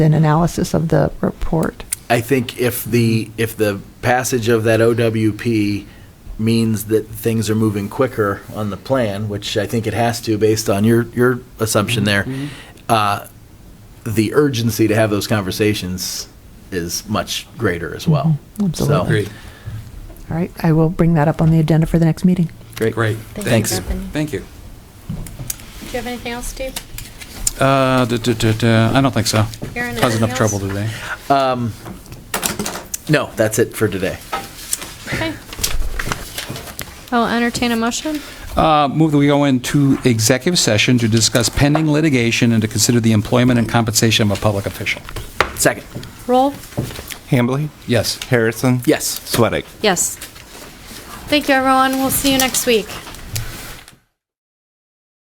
an analysis of the report. I think if the, if the passage of that OWP means that things are moving quicker on the plan, which I think it has to based on your, your assumption there, Mm-hmm. uh, the urgency to have those conversations is much greater as well. Mhm, absolutely. So- Agreed. All right, I will bring that up on the agenda for the next meeting. Great. Thanks. Thank you, Bethany. Thank you. Do you have anything else, Steve? Uh, duh, duh, duh, duh, I don't think so. Aaron, Caused anything enough trouble else? today. No, that's it for today. Okay. I'll entertain a motion. Uh, Move that we go into executive session to discuss pending litigation and to consider the employment and compensation of a public official. Second, Roll. Hambley, Yes. Harrison, yes. Sweattick. Yes. Thank you, everyone. We'll see you next week.